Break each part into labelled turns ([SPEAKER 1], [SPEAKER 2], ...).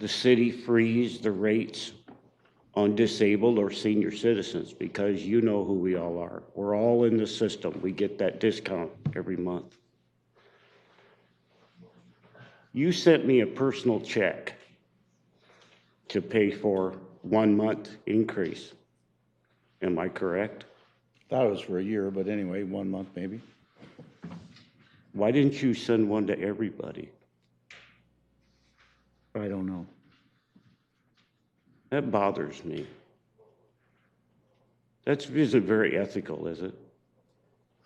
[SPEAKER 1] the city freeze the rates on disabled or senior citizens, because you know who we all are. We're all in the system. We get that discount every month. You sent me a personal check to pay for one month increase. Am I correct?
[SPEAKER 2] Thought it was for a year, but anyway, one month maybe.
[SPEAKER 1] Why didn't you send one to everybody?
[SPEAKER 2] I don't know.
[SPEAKER 1] That bothers me. That's isn't very ethical, is it?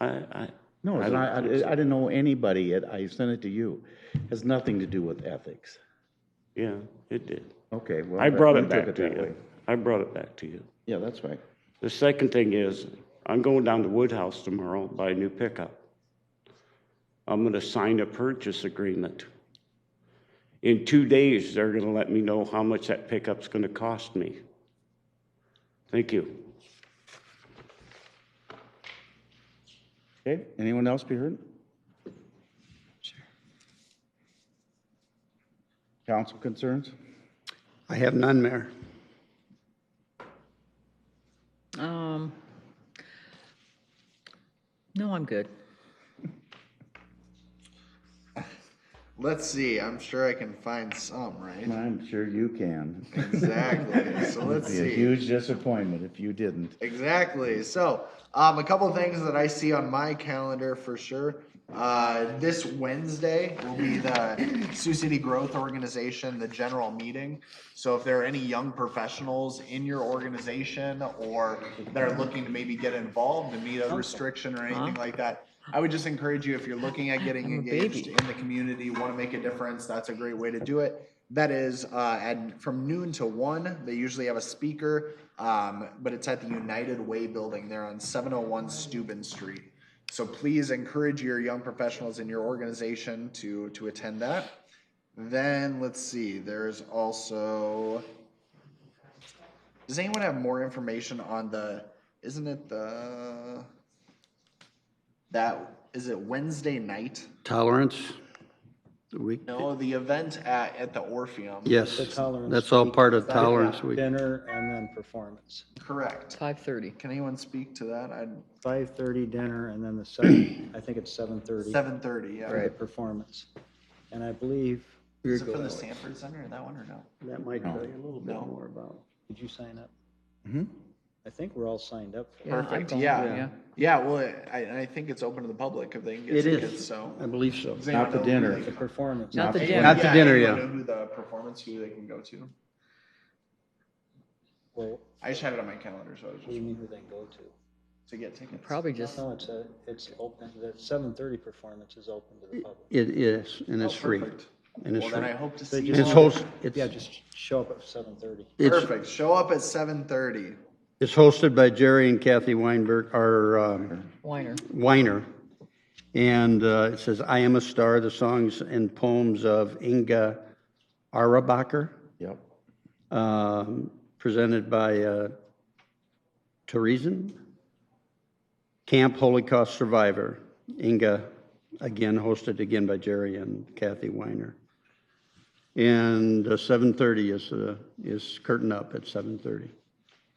[SPEAKER 1] I, I.
[SPEAKER 2] No, it's
[SPEAKER 1] don't
[SPEAKER 2] not, I,
[SPEAKER 1] think so.
[SPEAKER 2] I didn't know anybody yet. I sent it to you. Has nothing to do with ethics.
[SPEAKER 1] Yeah, it did.
[SPEAKER 2] Okay, well.
[SPEAKER 1] I brought
[SPEAKER 2] you
[SPEAKER 1] it
[SPEAKER 2] took
[SPEAKER 1] back to
[SPEAKER 2] that
[SPEAKER 1] you.
[SPEAKER 2] way.
[SPEAKER 1] I brought it back to you.
[SPEAKER 2] Yeah, that's right.
[SPEAKER 1] The second thing is, I'm going down to Woodhouse tomorrow, buy a new pickup. I'm gonna sign a purchase agreement. In two days, they're gonna let me know how much that pickup's gonna cost me. Thank you.
[SPEAKER 2] Okay, anyone else be heard? Council concerns?
[SPEAKER 3] I have none, Mayor.
[SPEAKER 4] Um, no, I'm good.
[SPEAKER 5] Let's see. I'm sure I can find some, right?
[SPEAKER 2] I'm sure you can.
[SPEAKER 5] Exactly. So let's
[SPEAKER 2] Be a
[SPEAKER 5] see.
[SPEAKER 2] huge disappointment if you didn't.
[SPEAKER 5] Exactly. So, um, a couple things that I see on my calendar for sure. Uh, this Wednesday will be the Sioux City Growth Organization, the general meeting. So, if there are any young professionals in your organization or that are looking to maybe get involved and meet a restriction or anything like that, I would just encourage you if you're looking at getting
[SPEAKER 4] I'm a
[SPEAKER 5] engaged
[SPEAKER 4] baby.
[SPEAKER 5] in the community, want to make a difference, that's a great way to do it. That is uh, at from noon to one. They usually have a speaker, um, but it's at the United Way building there on 701 Steuben Street. So please encourage your young professionals in your organization to to attend that. Then let's see. There's also. Does anyone have more information on the? Isn't it the? That is it Wednesday night?
[SPEAKER 3] Tolerance, week,
[SPEAKER 5] No, the event at, at the Orpheum.
[SPEAKER 3] yes.
[SPEAKER 6] The tolerance
[SPEAKER 3] That's all
[SPEAKER 6] week.
[SPEAKER 3] part of
[SPEAKER 6] That's got
[SPEAKER 3] tolerance week.
[SPEAKER 6] Dinner and then performance.
[SPEAKER 5] Correct.
[SPEAKER 4] Five thirty.
[SPEAKER 5] Can anyone speak to that? I,
[SPEAKER 6] Five thirty dinner and then the seven, I think it's seven thirty.
[SPEAKER 5] seven thirty, yeah.
[SPEAKER 6] For the performance. And I believe,
[SPEAKER 5] Is it for the Sanford Center, that one or no?
[SPEAKER 6] that might
[SPEAKER 2] No.
[SPEAKER 6] tell you a little bit
[SPEAKER 5] No.
[SPEAKER 6] more about, did you sign up?
[SPEAKER 2] Mhm.
[SPEAKER 6] I think we're all signed up. for it.
[SPEAKER 5] Perfect, yeah. Yeah, well, I, I think it's open to the public if they can get
[SPEAKER 3] It is.
[SPEAKER 5] tickets, so.
[SPEAKER 3] I believe so.
[SPEAKER 5] Does anyone
[SPEAKER 2] Not the
[SPEAKER 5] know who
[SPEAKER 2] dinner.
[SPEAKER 5] they
[SPEAKER 6] The
[SPEAKER 5] can-
[SPEAKER 6] performance.
[SPEAKER 4] Not the
[SPEAKER 2] Not
[SPEAKER 4] dinner.
[SPEAKER 3] Not the dinner,
[SPEAKER 5] anyone
[SPEAKER 3] yeah.
[SPEAKER 5] know Who the performance, who they can go to.
[SPEAKER 6] Well,
[SPEAKER 5] I just had it on my calendar, so I was
[SPEAKER 6] what do you
[SPEAKER 5] just,
[SPEAKER 6] mean who they go to?
[SPEAKER 5] to get tickets.
[SPEAKER 4] Probably just,
[SPEAKER 6] No, it's a, it's open, the seven thirty performance is open to the public.
[SPEAKER 3] It is, and it's
[SPEAKER 5] Oh,
[SPEAKER 3] free.
[SPEAKER 5] perfect.
[SPEAKER 3] And it's
[SPEAKER 5] Well, then
[SPEAKER 3] free.
[SPEAKER 5] I hope to
[SPEAKER 6] They
[SPEAKER 5] see you.
[SPEAKER 6] just-
[SPEAKER 3] It's
[SPEAKER 5] all.
[SPEAKER 3] host, it's,
[SPEAKER 6] Yeah, just show up at seven thirty.
[SPEAKER 3] it's,
[SPEAKER 5] Perfect, show up at seven thirty.
[SPEAKER 3] it's hosted by Jerry and Kathy Weinberg, or, um,
[SPEAKER 4] Weiner.
[SPEAKER 3] Weiner. And, uh, it says, I Am a Star, the songs and poems of Inga Arabacher,
[SPEAKER 2] Yep.
[SPEAKER 3] um, presented by, uh, Teresen? Camp Holocaust Survivor, Inga, again hosted again by Jerry and Kathy Weiner. And uh, 7:30 is, uh, is curtain up at 7:30.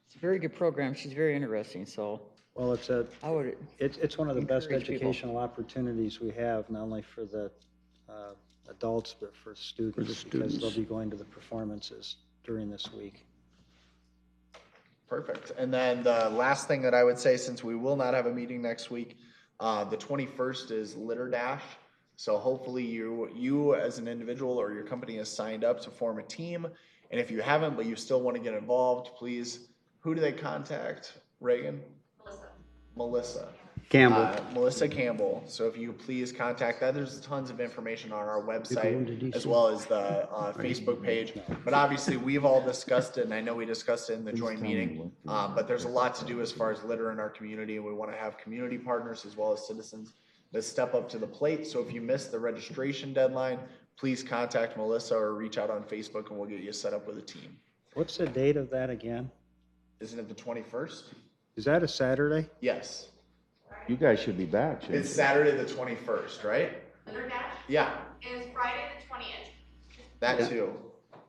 [SPEAKER 4] It's a very good program. She's very interesting, so
[SPEAKER 6] Well, it's a,
[SPEAKER 4] I would,
[SPEAKER 6] It's, it's one of the best
[SPEAKER 4] Encourage people.
[SPEAKER 6] educational opportunities we have, not only for the uh, adults, but for students. Because
[SPEAKER 3] students.
[SPEAKER 6] they'll be going to the performances during this week.
[SPEAKER 5] Perfect. And then the last thing that I would say, since we will not have a meeting next week, uh, the twenty-first is Litter Dash. So hopefully you, you as an individual or your company has signed up to form a team. And if you haven't, but you still want to get involved, please, who do they contact? Reagan? Melissa.
[SPEAKER 3] Campbell.
[SPEAKER 5] Uh, Melissa Campbell. So if you please contact that, there's tons of information on our website as well as the uh, Facebook page. But obviously, we've all discussed it, and I know we discussed it in the joint meeting. Uh, but there's a lot to do as far as litter in our community, and we want to have community partners as well as citizens that step up to the plate. So if you missed the registration deadline, please contact Melissa or reach out on Facebook, and we'll get you set up with a team.
[SPEAKER 6] What's the date of that again?
[SPEAKER 5] Isn't it the 21st?
[SPEAKER 6] Is that a Saturday?
[SPEAKER 5] Yes.
[SPEAKER 2] You guys should be back. shouldn't
[SPEAKER 5] It's Saturday the 21st, right?
[SPEAKER 7] Thunder Dash
[SPEAKER 5] Yeah,
[SPEAKER 7] is Friday the twentieth.
[SPEAKER 5] that too.